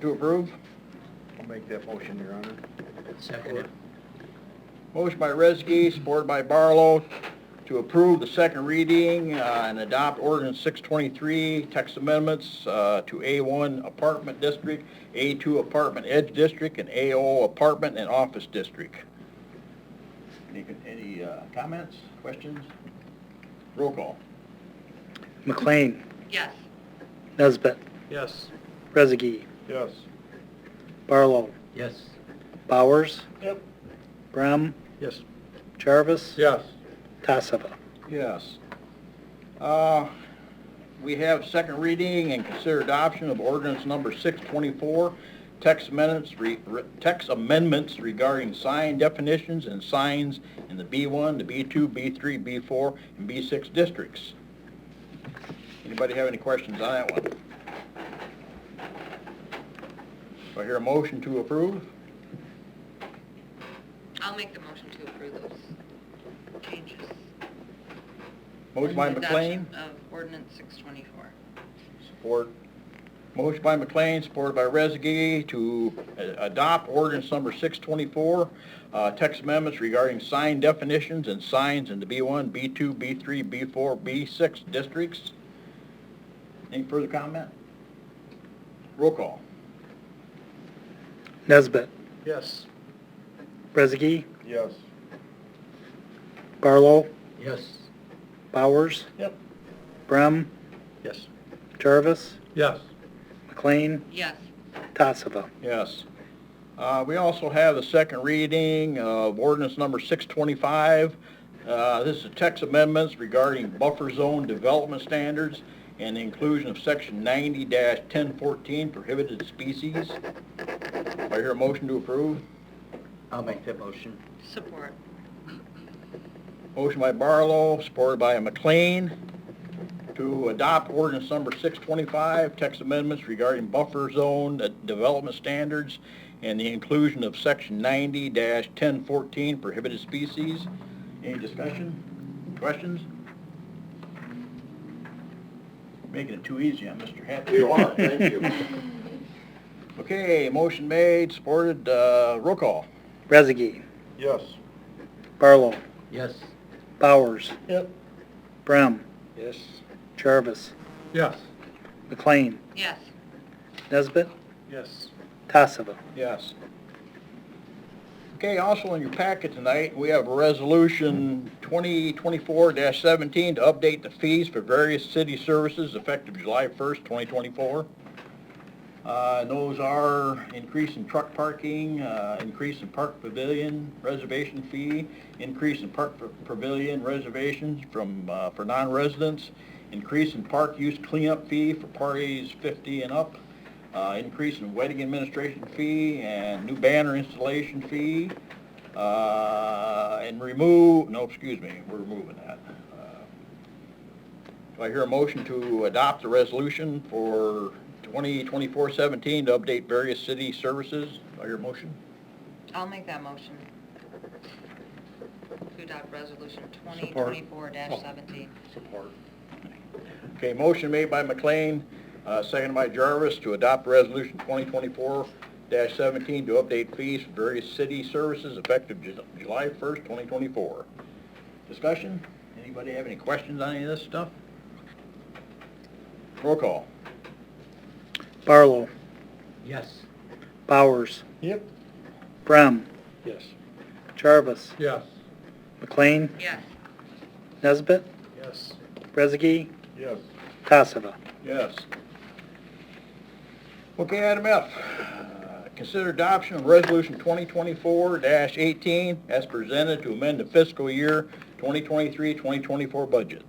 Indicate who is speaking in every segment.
Speaker 1: To approve? I'll make that motion, Your Honor.
Speaker 2: Second it.
Speaker 1: Motion by Rezegi, supported by Barlow, to approve the second reading uh, and adopt ordinance 623, text amendments uh, to A1 Apartment District, A2 Apartment Edge District, and AO Apartment and Office District. Any, any uh, comments, questions? Roll call.
Speaker 3: McLean,
Speaker 4: Yes.
Speaker 3: Nesbit,
Speaker 2: Yes.
Speaker 3: Rezegi,
Speaker 1: Yes.
Speaker 3: Barlow,
Speaker 2: Yes.
Speaker 3: Bowers,
Speaker 1: Yep.
Speaker 3: Brem,
Speaker 2: Yes.
Speaker 3: Jarvis,
Speaker 1: Yes.
Speaker 3: Tassava.
Speaker 1: Yes. Uh, We have second reading and consider adoption of ordinance number 624, text amendments, re- re- text amendments regarding sign definitions and signs in the B1, the B2, B3, B4, and B6 districts. Anybody have any questions on that one? Do I hear a motion to approve?
Speaker 4: I'll make the motion to approve those changes.
Speaker 1: Motion by
Speaker 4: And the
Speaker 1: McLean?
Speaker 4: adoption Of ordinance 624.
Speaker 1: Support. Motion by McLean, supported by Rezegi, to uh, adopt ordinance number 624, uh, text amendments regarding sign definitions and signs in the B1, B2, B3, B4, B6 districts. Any further comment? Roll call.
Speaker 3: Nesbit,
Speaker 2: Yes.
Speaker 3: Rezegi,
Speaker 1: Yes.
Speaker 3: Barlow,
Speaker 2: Yes.
Speaker 3: Bowers,
Speaker 1: Yep.
Speaker 3: Brem,
Speaker 1: Yes.
Speaker 3: Jarvis,
Speaker 2: Yes.
Speaker 3: McLean,
Speaker 4: Yes.
Speaker 3: Tassava.
Speaker 1: Yes. Uh, We also have the second reading of ordinance number 625. Uh, This is text amendments regarding buffer zone development standards and the inclusion of section 90-1014 prohibited species. Do I hear a motion to approve?
Speaker 2: I'll make that motion.
Speaker 4: Support.
Speaker 1: Motion by Barlow, supported by McLean, to adopt ordinance number 625, text amendments regarding buffer zone uh, development standards and the inclusion of section 90-1014 prohibited species. Any discussion? Questions? Making it too easy on Mr. Happy.
Speaker 3: You are, thank you.
Speaker 1: Okay, motion made, supported, uh, roll call.
Speaker 3: Rezegi,
Speaker 1: Yes.
Speaker 3: Barlow,
Speaker 2: Yes.
Speaker 3: Bowers,
Speaker 1: Yep.
Speaker 3: Brem,
Speaker 1: Yes.
Speaker 3: Jarvis,
Speaker 2: Yes.
Speaker 3: McLean,
Speaker 4: Yes.
Speaker 3: Nesbit,
Speaker 2: Yes.
Speaker 3: Tassava.
Speaker 1: Yes. Okay, also in your packet tonight, we have Resolution 2024-17 to update the fees for various city services effective July 1st, 2024. Uh, and Those are increase in truck parking, uh, increase in park pavilion reservation fee, increase in park pa- pavilion reservations from, uh, for non-residents, increase in park use cleanup fee for parties 50 and up, uh, increase in wedding administration fee and new banner installation fee, uh, and remove, no, excuse me, we're removing that. Uh, do I hear a motion to adopt the resolution for 2024-17 to update various city services? Do I hear a motion?
Speaker 4: I'll make that motion. To adopt resolution
Speaker 1: Support.
Speaker 4: 2024-17.
Speaker 1: Support. Okay, motion made by McLean, uh, seconded by Jarvis to adopt resolution 2024-17 to update fees for various city services effective Ju- July 1st, 2024. Discussion? Anybody have any questions on any of this stuff? Roll call.
Speaker 3: Barlow,
Speaker 2: Yes.
Speaker 3: Bowers,
Speaker 1: Yep.
Speaker 3: Brem,
Speaker 1: Yes.
Speaker 3: Jarvis,
Speaker 2: Yes.
Speaker 3: McLean,
Speaker 1: Oh.
Speaker 4: Yes.
Speaker 3: Nesbit,
Speaker 2: Yes.
Speaker 3: Rezegi,
Speaker 1: Yes.
Speaker 3: Tassava.
Speaker 1: Yes. Okay, item F, uh, consider adoption of Resolution 2024-18 as presented to amend the fiscal year 2023-2024 budget.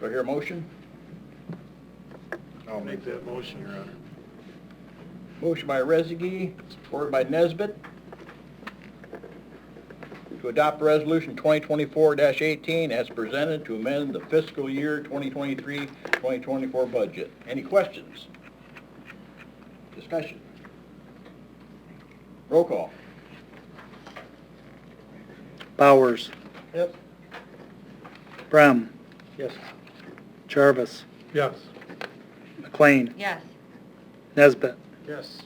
Speaker 1: Do I hear a motion?
Speaker 2: I'll make that motion, Your Honor.
Speaker 1: Motion by Rezegi, supported by Nesbit, to adopt Resolution 2024-18 as presented to amend the fiscal year 2023-2024 budget. Any questions? Discussion? Roll call.
Speaker 3: Bowers,
Speaker 1: Yep.
Speaker 3: Brem,
Speaker 1: Yes.
Speaker 3: Jarvis,
Speaker 2: Yes.
Speaker 3: McLean,
Speaker 4: Yes.
Speaker 3: Nesbit,
Speaker 1: Yes.